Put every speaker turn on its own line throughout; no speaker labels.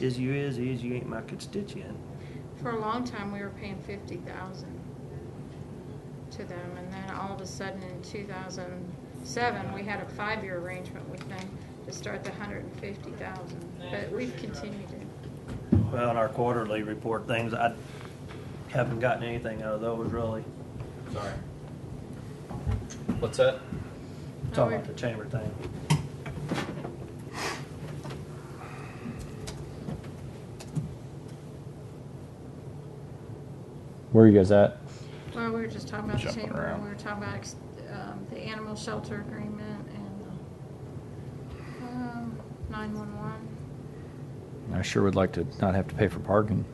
Is you is, is you ain't my constituent.
For a long time, we were paying fifty thousand to them, and then all of a sudden in two thousand seven, we had a five-year arrangement with them to start the hundred and fifty thousand, but we've continued it.
Well, in our quarterly report things, I haven't gotten anything out of those really.
Sorry. What's that?
Talking about the chamber thing.
Where are you guys at?
Well, we were just talking about the
Jumping
chamber,
around.
we were talking about, ex- um, the animal shelter agreement and, um, nine-one-one.
I sure would like to not have to pay for parking.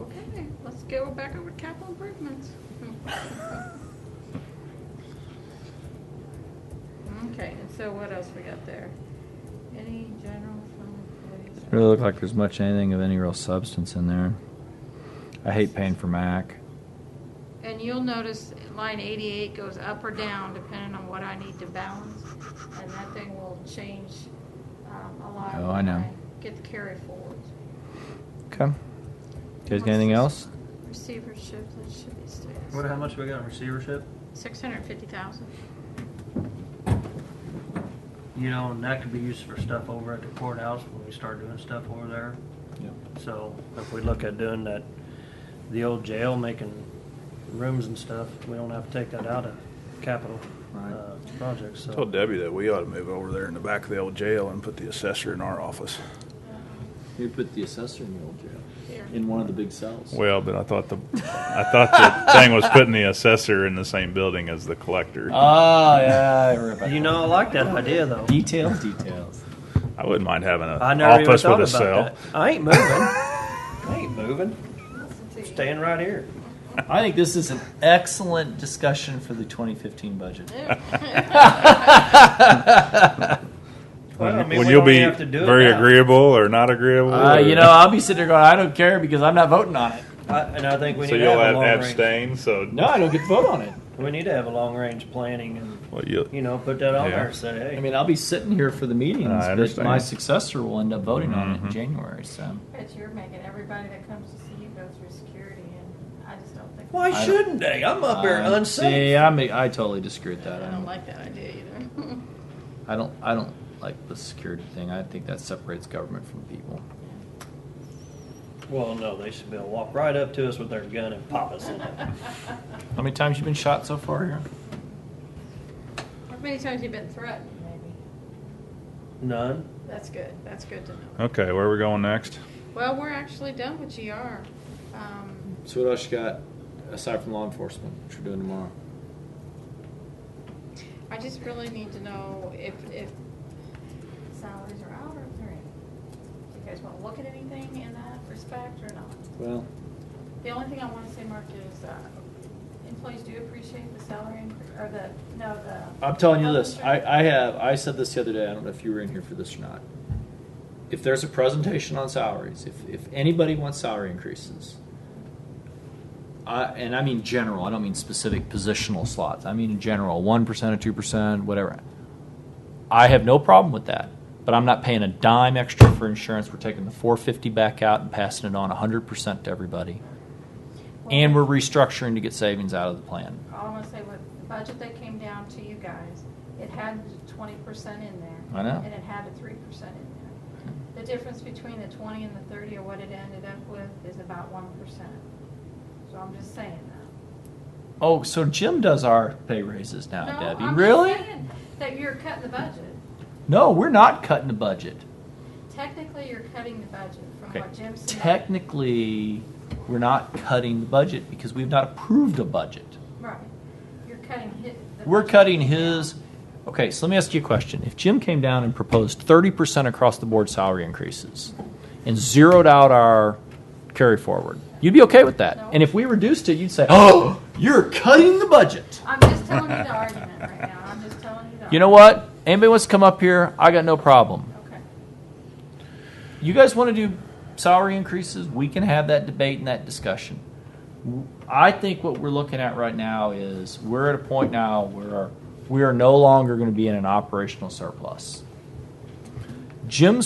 Okay, let's go back over to capital improvements. Okay, and so what else we got there? Any general fund employees?
It Really look like there's much anything of any real substance in there. I hate paying for Mac.
And you'll notice line eighty-eight goes up or down depending on what I need to balance, and that thing will change, um, a lot.
Oh, I know.
when Get the carry forwards.
Okay. You guys got anything else?
Receivership, that should be
What,
stays.
how much we got in receivership?
Six hundred and fifty thousand.
You know, and that could be used for stuff over at the courthouse when we start doing stuff over there.
Yeah.
So if we look at doing that, the old jail, making rooms and stuff, we don't have to take that out of capital, uh, projects, so.
Told Debbie that we ought to move over there in the back of the old jail and put the assessor in our office.
You put the assessor in the old jail,
Here.
in one of the big cells.
Well, but I thought the I thought the thing was putting the assessor in the same building as the collector.
Uh,
Ah, yeah.
You know, I like that idea though.
details.
Details.
I wouldn't mind having an
I never even
office
thought
with a
about
cell.
that. I ain't moving. I ain't moving. Staying right here.
I think this is an excellent discussion for the 2015 budget. Uh,
Well, I mean,
Would
we
you
don't
be
have to do it
very
now.
agreeable or not agreeable?
Uh,
or-
you know, I'll be sitting there going, I don't care because I'm not voting on it.
I, and I think we
so
need
you'll
to have,
have
a long range.
abstain. So
No, I don't get to vote on it.
We need to have a long range planning and
Well, you,
you know put that on
Yeah.
there. and Say, hey,
I mean, I'll be sitting here for the meetings,
I
but
understand.
my successor will end up voting on it in
Mhm.
January. So
Bet you're making everybody that comes to see you go through security, and I just don't think.
why
don't-
shouldn't they? I'm up there
Uh, See,
unsafe.
I'm, I totally disagree with
I
that. I
don't
don't,
like that idea either.
I don't. I don't like the security thing. I think that separates government from people.
Well, no, they should be able to walk right up to us with their gun and pop us in it.
How many times you been shot so far here?
How many times you been threatened, maybe?
None.
That's good, that's good to know.
okay, where are we going next?
Well, we're actually done with GR. Um,
So what else you got aside from law enforcement? What you're doing tomorrow?
I just really need to know if, if salaries are out or if they're in. Do you guys wanna look at anything in that respect or not?
Well,
The only thing I wanna say, Mark, is, uh, employees do appreciate the salary, incre- or the, no, the.
I'm telling you
health
this.
insurance.
I, I have. I said this the other day. I don't know if you were in here for this or not. If there's a presentation on salaries, if if anybody wants salary increases, I, and I mean general. I don't mean specific positional slots. I mean in general, one percent or two percent, whatever. I have no problem with that. But I'm not paying a dime extra for insurance. We're taking the 450 back out and passing it on 100% to everybody. And we're restructuring to get savings out of the plan.
all I want to say with the budget that came down to you guys, it had twenty percent in there.
I know.
And it had a three percent in there. The difference between the twenty and the thirty or what it ended up with is about one percent. So I'm just saying that.
Oh, so Jim does our pay raises now,
No,
Debbie.
I'm just
really?
saying That you're cutting the budget.
No, we're not cutting the budget.
Technically, you're cutting the budget from
Okay.
what Jim said.
Technically, we're not cutting the budget because we've not approved a budget.
Right. You're cutting his. the
We're
budget.
cutting his. Okay, so let me ask you a question. If Jim came down and proposed 30% across the board salary increases and zeroed out our carry forward, you'd be okay with that.
No.
And if we reduced it, you'd say, oh, you're cutting the budget.
I'm just telling you the argument right now. I'm just telling you the.
You know what? Anybody wants to come up here? I got no problem.
argument. Okay.
you guys want to do salary increases, we can have that debate and that discussion. I think what we're looking at right now is we're at a point now where we are no longer going to be in an operational surplus. Jim's